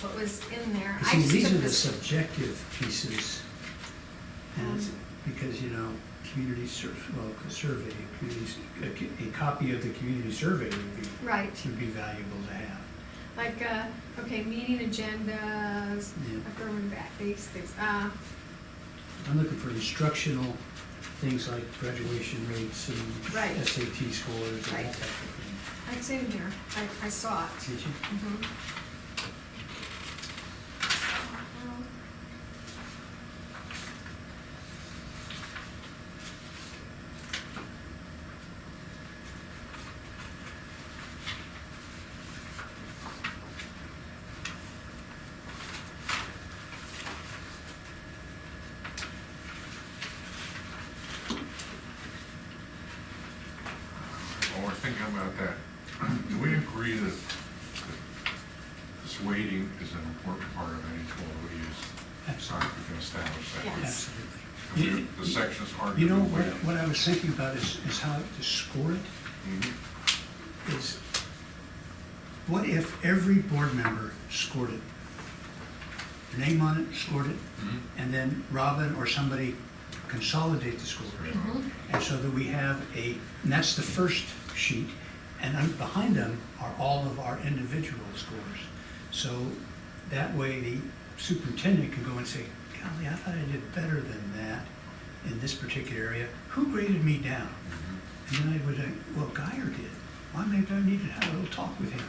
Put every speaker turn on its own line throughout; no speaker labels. what was in there. I
See,
just
these
took
are the
this-
subjective pieces, and
Um,
it's, because, you know, community sur, well, a survey, a community, s- a, co- a copy of the community survey would be,
Right,
would be valuable to have.
like, uh, okay, meeting agendas,
Yeah.
affirmative act, these things, uh,
I'm looking for instructional things like graduation rates and
Right.
SAT scores and
Right.
that type of
it's in here, I, I saw it.
thing. Did you?
Mhm.
While Oh, we're thinking about that, do we agree that that this weighting is an important part of any tool we use? It's not, we can establish that.
Yes.
Absolutely.
And we- The sections are.
You know,
gonna be
what,
weighted.
what I was thinking about is, is how to score it,
Mhm.
is what if every board member scored it? Their name on it, scored it,
Mhm.
and then Robin or somebody consolidate the score.
Mhm.
And so that we have a, and that's the first sheet, and un- behind them are all of our individual scores. So that way the superintendent can go and say, golly, I thought I did better than that in this particular area. Who graded me down? And
Mm-hmm.
then I would say, well, Guyer did. Why maybe I need to have a little talk with him.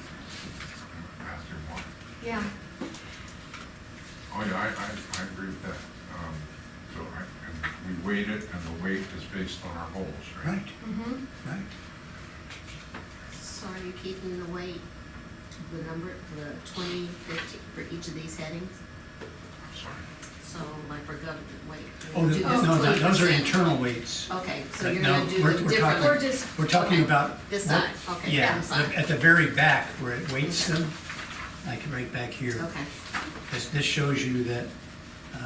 After one.
Yeah,
Oh, yeah, I, I, I agree with that. Um, So I, and we weight it, and the weight is based on our goals, right?
Right,
mhm,
right.
So are Mm-hmm. you keeping the weight, the number, the twenty, fifty, for each of these headings?
I'm sorry.
So like for government weight?
Oh,
you're gonna
no, no,
do this
those are
20%.
internal weights.
Okay, so
But
you're
no,
gonna do
we're-
them
we're
differently?
talking-
or just,
We're talking
Okay.
about.
This
what-
side, okay,
Yeah,
that side.
at the very back where it weights
Okay.
them, like right back here.
Okay,
This, this shows you that uh,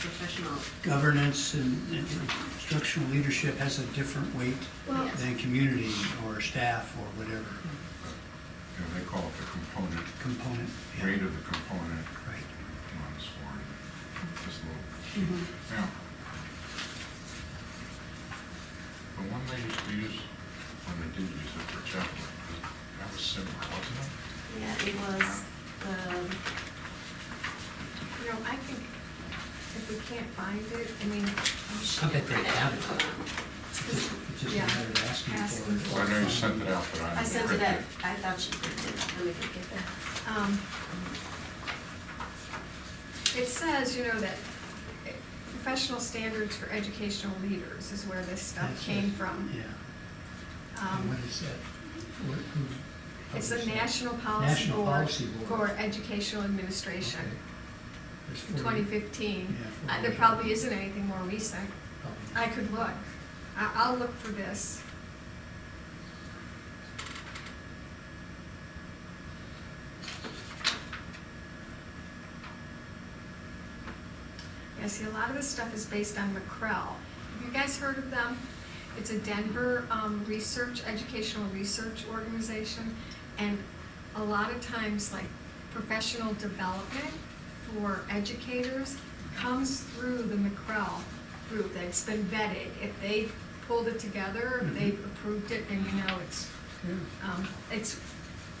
professional,
governance and and instructional leadership has a different weight
well,
Yes.
than community or staff or whatever
You know, they call it the component,
component. yeah,
weight of the component
Right.
on the score. Just a little. Now, the one they used to use, when they did use it for chapel, that was similar, wasn't it?
Yeah, it was, um,
you know, I think if we can't find it, I mean, I'm sure.
I bet they have it. It's just- It's just a
Yeah.
matter of asking
Asking
for
for
it.
I know you sent it out, but I.
I sent it
read
out, I thought she printed it, let me go get that.
Um, It says, you know, that eh, professional standards for educational leaders is where this stuff
That's
came
it.
from.
Yeah. And what
Um,
is that? What- who
It's the
published that?
National Policy
National
Board
Policy Board.
for Educational Administration,
Okay. There's
in
40
2015.
Yeah,
Uh, There
40.
probably isn't anything more recent.
probably.
I could look. I- I'll look for this. Yeah, see, a lot of this stuff is based on McCrell. Have you guys heard of them? It's a Denver um, research, educational research organization, and a lot of times, like, professional development for educators comes through the McCrell group that's been vetted. If they pulled it together,
Mm-hmm.
if they've approved it, then you know it's,
Yeah.
um, it's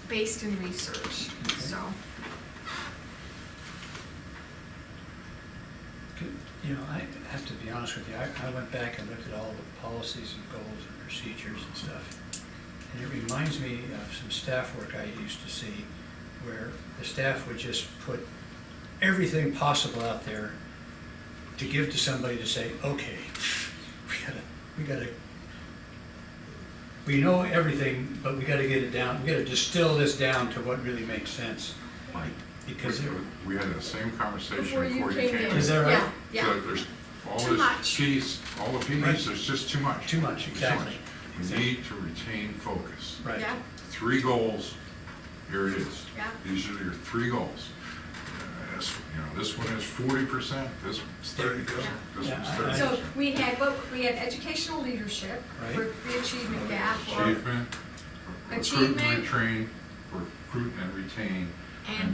based in research,
Okay.
so.
Could- You know, I have to be honest with you, I, I went back and looked at all the policies and goals and procedures and stuff. And it reminds me of some staff work I used to see where the staff would just put everything possible out there to give to somebody to say, okay, we gotta, we gotta, we know everything, but we gotta get it down, we gotta distill this down to what really makes sense.
Right.
Because it,
We had the same conversation
Before you came in.
Is that right?
Yeah,
So
yeah.
there's all
Too
this
much.
cheese, all the
Right.
peas, there's just too much.
Too much,
There's
exactly.
We need to retain focus.
right.
Yeah,
Three goals, here it is.
Yeah.
These are your three goals. Uh, this- You know, this one is forty percent, this one's thirty percent, this
Yeah.
one's
Yeah, I-
thirty
so
percent.
we had, what, we had educational leadership,
Right.
for the achievement gap, or
Achievement, recruit and
Achievement.
retrain, recruit and retain,
And